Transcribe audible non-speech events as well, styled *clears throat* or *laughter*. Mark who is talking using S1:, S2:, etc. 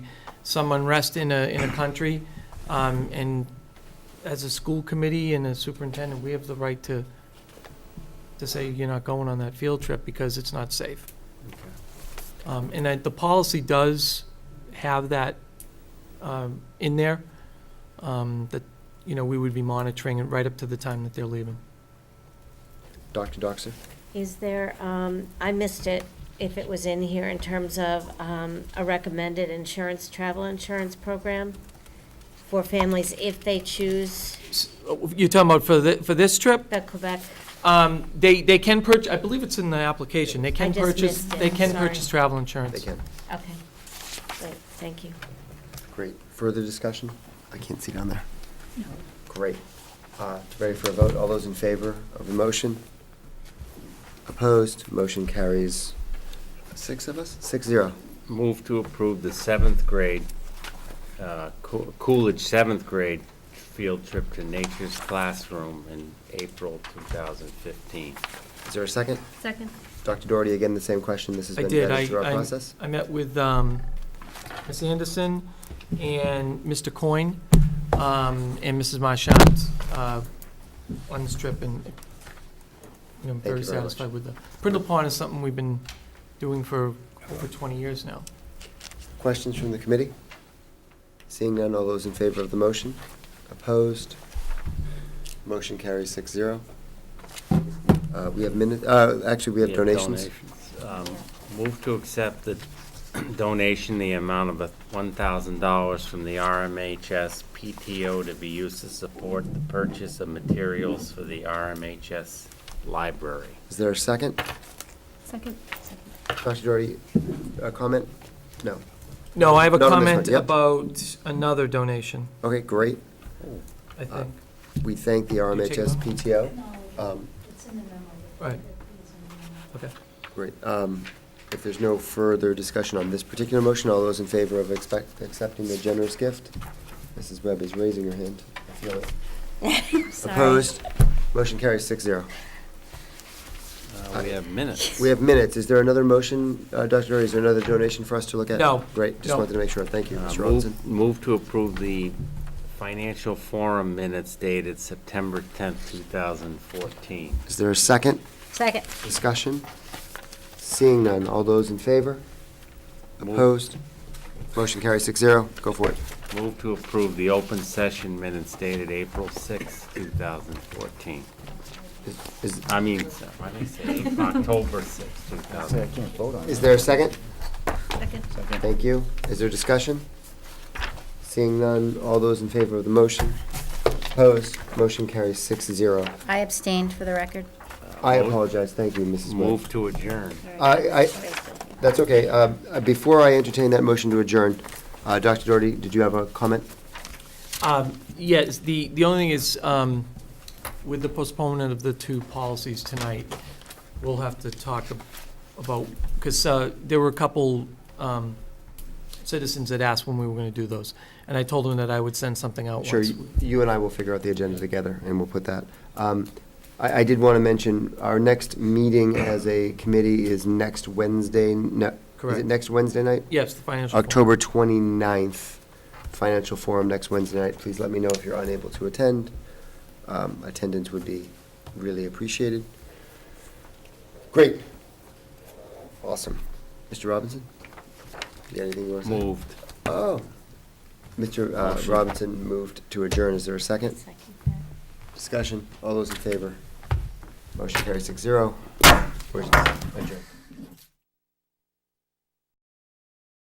S1: some unrest in a, in a country. Um, And as a school committee and a superintendent, we have the right to, to say you're not going on that field trip because it's not safe. Um, And I- the policy does have that um, in there, um, that, you know, we would be monitoring it right up to the time that they're leaving.
S2: Dr. Doxer?
S3: Is there, um, I missed it, if it was in here, in terms of um, a recommended insurance, travel insurance program for families if they choose
S1: S- oh, You're talking about for the, for this trip?
S3: the Quebec?
S1: Um, They, they can purchase, I believe it's in the application, they can
S3: I just
S1: purchase,
S3: missed it,
S1: they can
S3: sorry.
S1: purchase travel insurance.
S2: They can.
S3: Okay, great, thank you.
S2: Great. Further discussion? I can't see down there. Great. Uh, Ready for a vote? All those in favor of the motion? Opposed? Motion carries
S4: Six of us?
S2: six zero.
S5: Move to approve the seventh grade, uh, Coo- Coolidge seventh grade field trip to Nature's Classroom in April 2015.
S2: Is there a second?
S3: Second.
S2: Dr. Doherty, again, the same question. This has
S1: I
S2: been
S1: did, I,
S2: vetted through our
S1: I,
S2: process.
S1: I met with, um, Ms. Anderson and Mr. Coyne, um, and Mrs. Marchant, uh, on this trip, and, you know, I'm very
S2: Thank you very much.
S1: satisfied with the, Brindle Pond is something we've been doing for over twenty years now.
S2: Questions from the committee? Seeing none, all those in favor of the motion? Opposed? Motion carries six zero. Uh, We have minutes, actually, we have donations.
S5: Um, Move to accept the *clears throat* donation, the amount of a $1,000 from the RMHS PTO to be used to support the purchase of materials for the RMHS library.
S2: Is there a second?
S6: Second.
S2: Dr. Doherty, a uh, comment? No.
S1: No, I have a
S2: Not on this one,
S1: comment
S2: yep.
S1: about another donation,
S2: Okay, great. Uh,
S1: I think,
S2: We thank the RMHS
S1: one?
S2: PTO. Um,
S1: right, okay.
S2: Great. Um, If there's no further discussion on this particular motion, all those in favor of expect, accepting the generous gift? Mrs. Webb is raising her hand. I feel it. Opposed? Motion carries six zero.
S5: Uh, We have minutes.
S2: We have minutes. Is there another motion, uh, Dr. Doherty, is there another donation for us to look at?
S1: No.
S2: Great, just
S1: No.
S2: wanted to make sure. Thank you,
S5: Uh,
S2: Mr. Robinson.
S5: Move move to approve the financial forum minutes dated September 10th, 2014.
S2: Is there a second?
S3: Second.
S2: Discussion? Seeing none, all those in favor?
S5: Move-
S2: Opposed? Motion carries six zero, go for it.
S5: Move to approve the open session minutes dated April 6th, 2014.
S2: Is,
S5: I mean, so- why did I *laughs* say October 6th, 2014?
S2: is there a second?
S3: Second.
S2: Thank you. Is there discussion? Seeing none, all those in favor of the motion? Opposed? Motion carries six zero.
S6: I abstained for the record.
S2: I apologize, thank you, Mrs. Webb.
S5: Move to adjourn.
S2: I, I, that's okay. Um, uh, Before I entertain that motion to adjourn, uh, Dr. Doherty, did you have a comment?
S1: Um, Yes, the, the only thing is, um, with the postponement of the two policies tonight, we'll have to talk ab- about, because there were a couple um, citizens that asked when we were going to do those, and I told them that I would send something out
S2: Sure,
S1: once.
S2: you- you and I will figure out the agenda together, and we'll put that. Um, I, I did want to mention, our next meeting as a committee is next Wednesday, no, is
S1: Correct.
S2: it next Wednesday night?
S1: Yes, the financial. forum.
S2: October 29th, Financial Forum next Wednesday night. Please let me know if you're unable to attend. Um, Attendance would be really appreciated. Great. Awesome. Mr. Robinson? You got anything you want to say?
S5: Moved.
S2: Oh. Mr. uh, Robinson moved to adjourn. Is there a second? Discussion. All those in favor? Motion carries six zero. We're